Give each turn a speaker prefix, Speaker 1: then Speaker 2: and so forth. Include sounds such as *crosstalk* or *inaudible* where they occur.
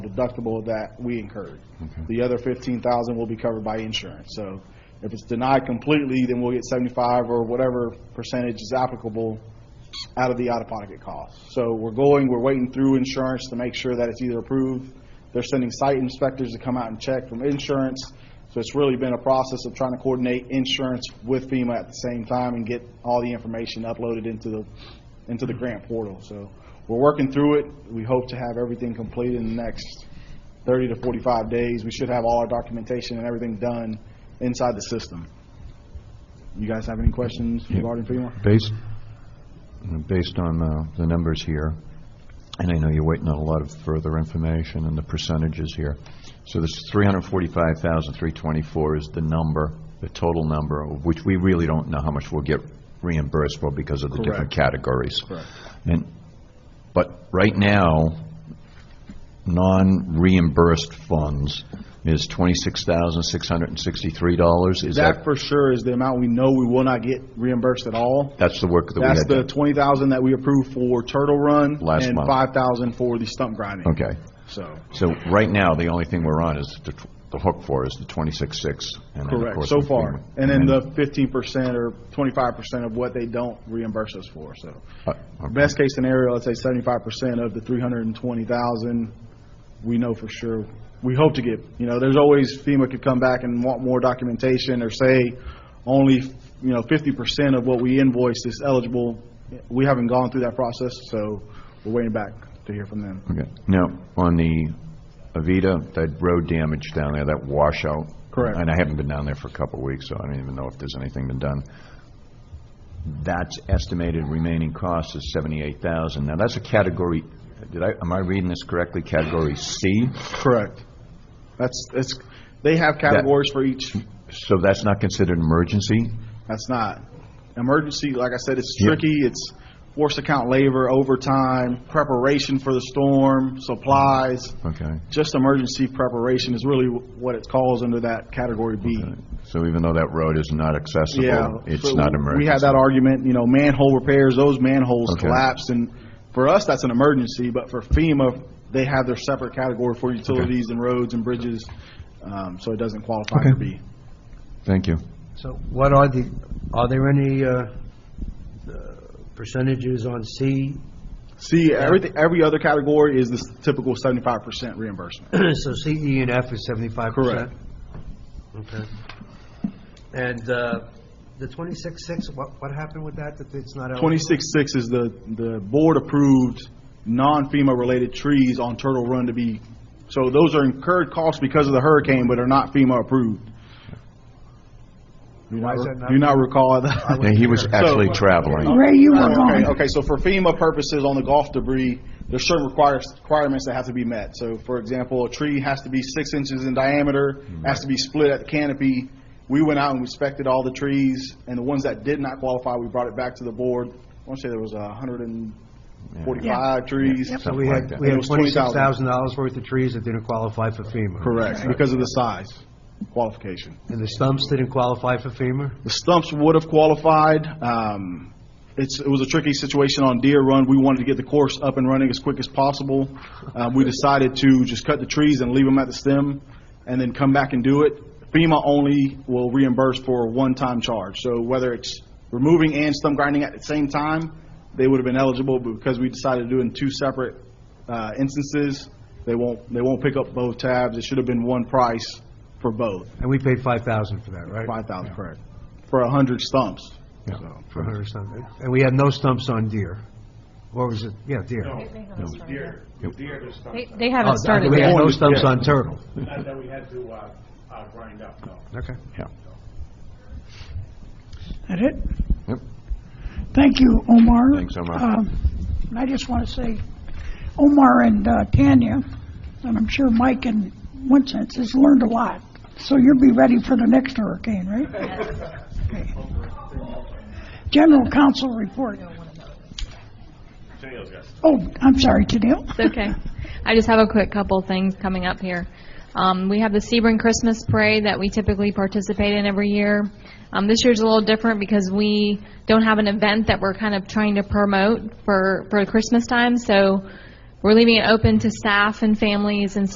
Speaker 1: deductible that we incurred. The other fifteen thousand will be covered by insurance. So if it's denied completely, then we'll get seventy-five or whatever percentage is applicable out of the out-of-pocket cost. So we're going, we're waiting through insurance to make sure that it's either approved. They're sending site inspectors to come out and check from insurance. So it's really been a process of trying to coordinate insurance with FEMA at the same time and get all the information uploaded into the, into the grant portal. So we're working through it. We hope to have everything completed in the next thirty to forty-five days. We should have all our documentation and everything done inside the system. You guys have any questions regarding FEMA?
Speaker 2: Based, based on uh, the numbers here, and I know you're waiting on a lot of further information and the percentages here, so this 345,324 is the number, the total number, of which we really don't know how much we'll get reimbursed for because of the different categories.
Speaker 1: Correct.
Speaker 2: And, but right now, non-reimbursed funds is $26,663, is
Speaker 1: That
Speaker 2: that,
Speaker 1: for sure is the amount we know we will not get reimbursed at all.
Speaker 2: that's the work that we had
Speaker 1: That's
Speaker 2: done?
Speaker 1: the twenty thousand that we approved for Turtle Run.
Speaker 2: Last
Speaker 1: And
Speaker 2: month.
Speaker 1: five thousand for the stump grinding.
Speaker 2: Okay.
Speaker 1: So,
Speaker 2: So right now, the only thing we're on is, the tw- the hook for is the 26.6. and then, of
Speaker 1: correct,
Speaker 2: course, Mm-hmm.
Speaker 1: so
Speaker 2: if we-
Speaker 1: far. And then the fifteen percent or twenty-five percent of what they don't reimburse us for, so.
Speaker 2: Uh, okay.
Speaker 1: Best case scenario, let's say seventy-five percent of the three hundred and twenty thousand, we know for sure, we hope to get, you know, there's always FEMA could come back and want more documentation or say only, you know, fifty percent of what we invoiced is eligible. We haven't gone through that process, so we're waiting back to hear from them.
Speaker 2: Okay. Now, on the Avita, that road damage down there, that washout.
Speaker 1: Correct.
Speaker 2: And I haven't been down there for a couple of weeks, so I don't even know if there's anything been done. That's estimated remaining cost is 78,000. Now, that's a category, did I, am I reading this correctly? Category C?
Speaker 1: Correct. That's, it's, they have categories for each,
Speaker 2: So that's not considered emergency?
Speaker 1: that's not. Emergency, like I said, it's
Speaker 2: Yeah.
Speaker 1: tricky, it's forced account labor, overtime, preparation for the storm, supplies.
Speaker 2: Okay.
Speaker 1: Just emergency preparation is really what it calls under that category B.
Speaker 2: So even though that road is not
Speaker 1: Yeah.
Speaker 2: accessible, it's
Speaker 1: so
Speaker 2: not
Speaker 1: We
Speaker 2: emergency?
Speaker 1: had that argument, you know, manhole repairs, those manholes
Speaker 2: Okay.
Speaker 1: collapsed, and for us, that's an emergency, but for FEMA, they have their separate category for utilities and roads and bridges, um, so it doesn't qualify for B.
Speaker 2: Thank you.
Speaker 3: So what are the, are there any uh, uh, percentages on C? *clears throat*
Speaker 1: See, everything, every other category is this typical seventy-five percent reimbursement.
Speaker 3: So C, E, and F is seventy-five percent? Okay. And uh, the twenty-six-six, what, what happened with that, that it's not? eligible?
Speaker 1: Twenty-six-six is the, the board-approved, non-FEMA-related trees on Turtle Run to be, so those are incurred costs because of the hurricane, but are not FEMA-approved. Do you
Speaker 3: Why
Speaker 1: not-
Speaker 3: is that not-
Speaker 1: do you not recall that?
Speaker 2: Yeah, He was actually
Speaker 1: So-
Speaker 2: traveling.
Speaker 4: Ray, you were
Speaker 1: Okay,
Speaker 4: going.
Speaker 1: okay, so for FEMA purposes on the golf debris, there's certain requires, requirements that have to be met. So for example, a tree has to be six inches in diameter, has to be split at the canopy. We went out and inspected all the trees, and the ones that did not qualify, we brought it back to the board. I want to say there was a hundred and forty-five trees.
Speaker 3: So we
Speaker 2: Something like
Speaker 3: had,
Speaker 2: that.
Speaker 3: we
Speaker 1: It
Speaker 3: had
Speaker 1: was 20,000.
Speaker 3: twenty-six thousand dollars worth of trees that didn't qualify for FEMA?
Speaker 1: Correct, because of the size qualification.
Speaker 3: And the stumps didn't qualify for FEMA?
Speaker 1: The stumps would have qualified. Um, It's, it was a tricky situation on Deer Run. We wanted to get the course up and running as quick as possible. Uh, We decided to just cut the trees and leave them at the stem and then come back and do it. FEMA only will reimburse for a one-time charge. So whether it's removing and stump grinding at the same time, they would have been eligible, but because we decided to do it in two separate uh, instances, they won't, they won't pick up both tabs. It should have been one price for both,
Speaker 3: And we paid five thousand for that, right?
Speaker 1: 5,000, correct, for 100 stumps. So.
Speaker 3: For her stump. And we had no stumps on deer? Or was it, yeah, deer? No,
Speaker 5: They they
Speaker 3: Oh,
Speaker 5: haven't
Speaker 3: I mean,
Speaker 5: started
Speaker 3: We had
Speaker 5: yet.
Speaker 3: no stumps on turtle.
Speaker 6: Not that we had to uh, uh, grind up, no.
Speaker 3: Okay.
Speaker 4: That it?
Speaker 2: Yep.
Speaker 4: Thank you, Omar.
Speaker 2: Thanks, Omar.
Speaker 4: Um, And I just want to say, Omar and uh, Tanya, and I'm sure Mike and Winston has learned a lot. So you'll be ready for the next hurricane, right? Okay. General Counsel report. Oh, I'm sorry, Tennille.
Speaker 5: It's okay. I just have a quick couple things coming up here. Um, We have the Sebring Christmas Parade that we typically participate in every year. Um, This year's a little different because we don't have an event that we're kind of trying to promote for for Christmas time, so we're leaving it open to staff and families and